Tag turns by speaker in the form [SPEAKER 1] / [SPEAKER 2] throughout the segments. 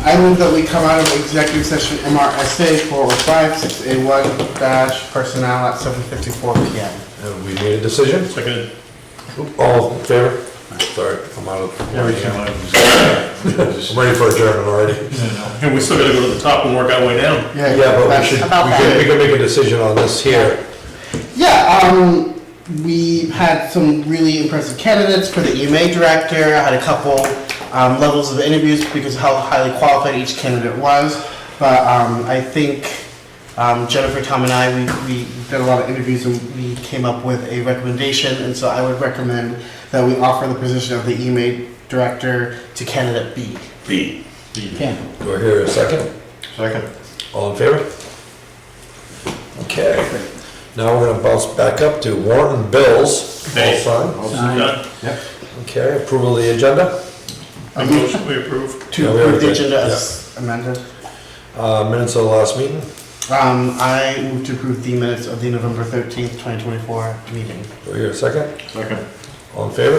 [SPEAKER 1] I move that we come out of executive session MRSA 405-6A1 dash personnel at 7:54 PM.
[SPEAKER 2] Have we made a decision?
[SPEAKER 3] Second.
[SPEAKER 2] All in favor? Sorry, I'm out of, I'm ready for adjournment already.
[SPEAKER 3] And we still gotta go to the top and work our way down.
[SPEAKER 2] Yeah, but we
[SPEAKER 1] that's-
[SPEAKER 2] should, we
[SPEAKER 4] About
[SPEAKER 2] can, we can make a decision on this here.
[SPEAKER 1] Yeah, um, we had some really impressive candidates for the EMA director. I had a couple um, levels of interviews because of how highly qualified each candidate was. But um, I think um, Jennifer, Tom, and I, we, we did a lot of interviews and we came up with a recommendation. And so I would recommend that we offer the position of the EMA director to candidate B.
[SPEAKER 3] B.
[SPEAKER 2] Do I hear a second?
[SPEAKER 3] Second.
[SPEAKER 2] All in favor? Okay, now we're gonna bounce back up to warrant and bills. All
[SPEAKER 3] Okay.
[SPEAKER 2] signed?
[SPEAKER 3] Done.
[SPEAKER 2] Okay, approval of the agenda,
[SPEAKER 3] A motion we approve.
[SPEAKER 1] To
[SPEAKER 2] Yeah, we
[SPEAKER 1] approve
[SPEAKER 2] already
[SPEAKER 1] the
[SPEAKER 2] did,
[SPEAKER 1] agenda as amended.
[SPEAKER 2] uh, minutes of the last meeting.
[SPEAKER 1] Um, I move to approve the minutes of the November 13th, 2024 meeting.
[SPEAKER 2] Do I hear a second?
[SPEAKER 3] Second.
[SPEAKER 2] All in favor?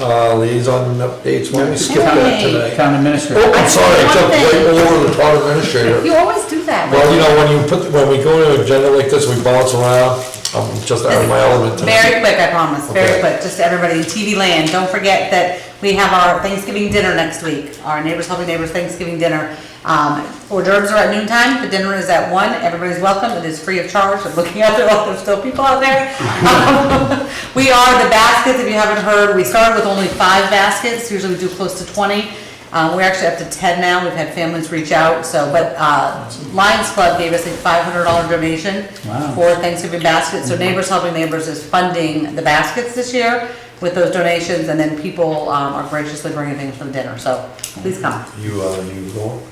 [SPEAKER 2] Uh, liaison updates, why don't we skip that
[SPEAKER 5] Hey.
[SPEAKER 2] tonight?
[SPEAKER 6] Town
[SPEAKER 2] Oh,
[SPEAKER 6] administrator.
[SPEAKER 2] I'm sorry, I jumped right
[SPEAKER 5] Nothing.
[SPEAKER 2] over the town administrator.
[SPEAKER 5] You always do that.
[SPEAKER 2] Well, you know, when you put, when we go to an agenda like this, we bounce around, I'm just out of my element
[SPEAKER 4] Very
[SPEAKER 2] tonight.
[SPEAKER 4] quick, I promise,
[SPEAKER 2] Okay.
[SPEAKER 4] very quick, just to everybody in TV land, don't forget that we have our Thanksgiving dinner next week, our Neighbors Helping Neighbors Thanksgiving dinner. Um, hors d'oeuvres are at noon time, the dinner is at one, everybody's welcome, it is free of charge, I'm looking out there, oh, there's still people out there. Um, We are the baskets, if you haven't heard, we started with only five baskets, usually we do close to twenty. Uh, we're actually up to ten now, we've had families reach out, so, but, uh, Lions Club gave us a five hundred dollar donation
[SPEAKER 6] Wow.
[SPEAKER 4] for Thanksgiving baskets. So Neighbors Helping Neighbors is funding the baskets this year with those donations, and then people um, are graciously bringing things for the dinner, so please come.
[SPEAKER 2] You, uh, you going?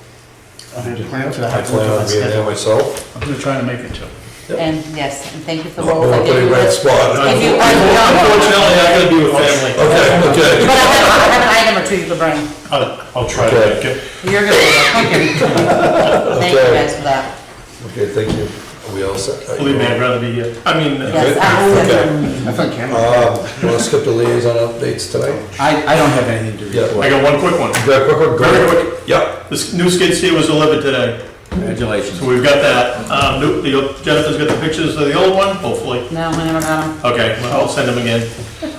[SPEAKER 1] I had planned to
[SPEAKER 2] I
[SPEAKER 1] have to look at
[SPEAKER 2] plan
[SPEAKER 1] my
[SPEAKER 2] on being there
[SPEAKER 1] schedule.
[SPEAKER 2] myself.
[SPEAKER 6] I'm gonna try to make it to.
[SPEAKER 4] And yes, and thank you for the
[SPEAKER 6] Oh,
[SPEAKER 2] Well, we're
[SPEAKER 4] roles. I gave
[SPEAKER 2] putting
[SPEAKER 4] you.
[SPEAKER 2] red oh, spot.
[SPEAKER 4] If you-
[SPEAKER 2] Okay,
[SPEAKER 3] Unfortunately, I gotta be with family.
[SPEAKER 2] okay.
[SPEAKER 4] But I have, I have an item or two you could bring.
[SPEAKER 3] I'll, I'll try to
[SPEAKER 2] Okay.
[SPEAKER 3] make it.
[SPEAKER 4] You're gonna, thank you Thank you guys for that.
[SPEAKER 2] Okay, thank you. Are we all set? Are you
[SPEAKER 3] Believe me, I'd
[SPEAKER 2] all-
[SPEAKER 3] rather be, uh, I mean, uh,
[SPEAKER 4] Yes,
[SPEAKER 6] Oh,
[SPEAKER 4] absolutely.
[SPEAKER 2] Okay.
[SPEAKER 1] That's on camera.
[SPEAKER 2] Um, you wanna skip the liaison updates tonight?
[SPEAKER 6] I, I don't have anything to
[SPEAKER 2] Yeah.
[SPEAKER 3] I
[SPEAKER 6] report.
[SPEAKER 3] got one quick one.
[SPEAKER 2] Very quick, quick,
[SPEAKER 3] Very
[SPEAKER 2] quick.
[SPEAKER 3] quick.
[SPEAKER 2] Yep.
[SPEAKER 3] This new skid steer was delivered today,
[SPEAKER 6] Congratulations.
[SPEAKER 3] so we've got that. Um, new- the- Jennifer's got the pictures of the old one, hopefully.
[SPEAKER 4] No, I never got 'em.
[SPEAKER 3] Okay, well, I'll send them again.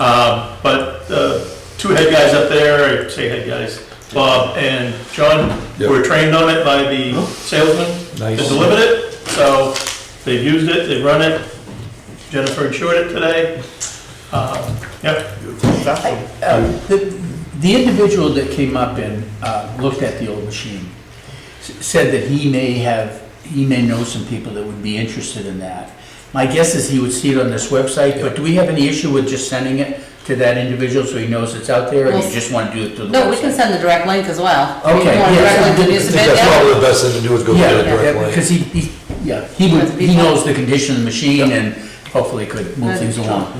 [SPEAKER 3] Um, But uh, two head guys up there, I say head guys, Bob and John,
[SPEAKER 2] Yeah.
[SPEAKER 3] were trained on it by the salesman. They
[SPEAKER 2] Nice.
[SPEAKER 3] delivered it, so they've used it, they've run it. Jennifer insured it today. Uh, Yep,
[SPEAKER 6] Um, The the individual that came up and uh, looked at the old machine s- said that he may have, he may know some people that would be interested in that. My guess is he would see it on this website, but do we have any issue with just sending it to that individual so he knows it's out there, or you
[SPEAKER 4] Well,
[SPEAKER 6] just wanna do it through the website?
[SPEAKER 4] No, we can send the direct link as well. If
[SPEAKER 6] Okay,
[SPEAKER 4] You want a
[SPEAKER 6] yeah.
[SPEAKER 4] direct link to
[SPEAKER 2] I
[SPEAKER 4] use
[SPEAKER 2] think
[SPEAKER 4] the bid,
[SPEAKER 2] that's
[SPEAKER 4] yeah.
[SPEAKER 2] probably the best thing to do is go get
[SPEAKER 6] Yeah,
[SPEAKER 2] it
[SPEAKER 6] yeah,
[SPEAKER 2] directly.
[SPEAKER 6] because he, he, yeah, he would, he knows the condition of the machine and hopefully could
[SPEAKER 4] Uh,
[SPEAKER 6] move things along.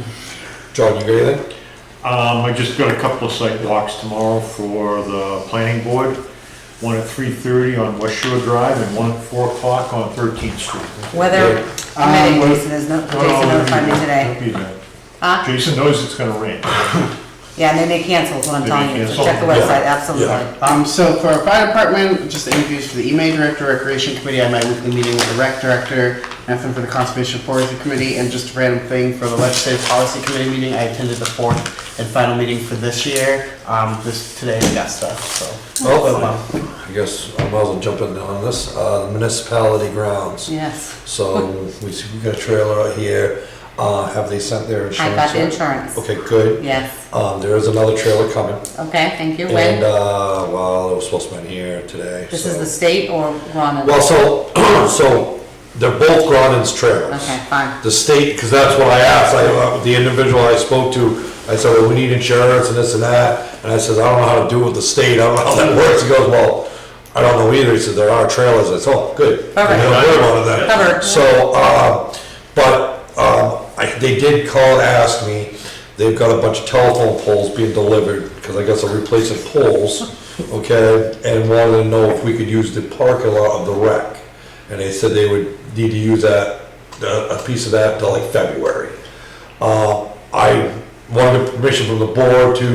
[SPEAKER 2] John, you got anything?
[SPEAKER 7] Um, I just got a couple of site walks tomorrow for the planning board. One at three thirty on West Shore Drive and one at four o'clock on Thirteenth Street.
[SPEAKER 4] Weather
[SPEAKER 1] Um,
[SPEAKER 4] committee, Jason is, no- Jason
[SPEAKER 7] um,
[SPEAKER 4] notified me today.
[SPEAKER 7] Don't be Oh, there.
[SPEAKER 4] Huh?
[SPEAKER 7] Jason knows it's gonna rain.
[SPEAKER 4] Yeah, and they may cancel, is what I'm
[SPEAKER 7] They may
[SPEAKER 4] telling you, so
[SPEAKER 7] cancel.
[SPEAKER 4] check the
[SPEAKER 7] Yeah.
[SPEAKER 4] website, absolutely.
[SPEAKER 1] Um, so for our fire department, just the interviews for the EMA director, recreation committee, I met weekly meeting with the rec director, nothing for the conservation forestry committee, and just a random thing for the legislative policy committee meeting, I attended the fourth and final meeting for this year, um, this, today in Augusta, so.
[SPEAKER 2] Oh,
[SPEAKER 1] Well,
[SPEAKER 2] I guess I might as well jump in on this, uh, municipality grounds.
[SPEAKER 4] Yes,
[SPEAKER 2] So we, we got a trailer out here, uh, have they sent their
[SPEAKER 4] I
[SPEAKER 2] insurance?
[SPEAKER 4] got the
[SPEAKER 2] yet?
[SPEAKER 4] insurance.
[SPEAKER 2] Okay, good.
[SPEAKER 4] Yes,
[SPEAKER 2] Um, there is another trailer coming.
[SPEAKER 4] okay, thank you.
[SPEAKER 2] And,
[SPEAKER 4] When,
[SPEAKER 2] uh, well, it was supposed to be in here today,
[SPEAKER 4] this is the
[SPEAKER 2] so.
[SPEAKER 4] state or Ronan?
[SPEAKER 2] Well, so, so they're both Gronin's trailers.
[SPEAKER 4] Okay, fine.
[SPEAKER 2] The state, because that's what I asked, I, uh, the individual I spoke to, I said, well, we need insurance and this and that. And I said, I don't know how to do with the state, I don't know how that works. He goes, well, I don't know either. He said, there are trailers. I said, oh, good. We
[SPEAKER 4] Perfect.
[SPEAKER 2] don't hear about that.
[SPEAKER 4] Covered.
[SPEAKER 2] So, uh, but, um, I, they did call and ask me, they've got a bunch of telephone poles being delivered, because I guess they're replacing poles, okay? And wanted to know if we could use the parking lot of the wreck. And they said they would need to use that, uh, a piece of that till like February. Uh, I wanted permission from the board to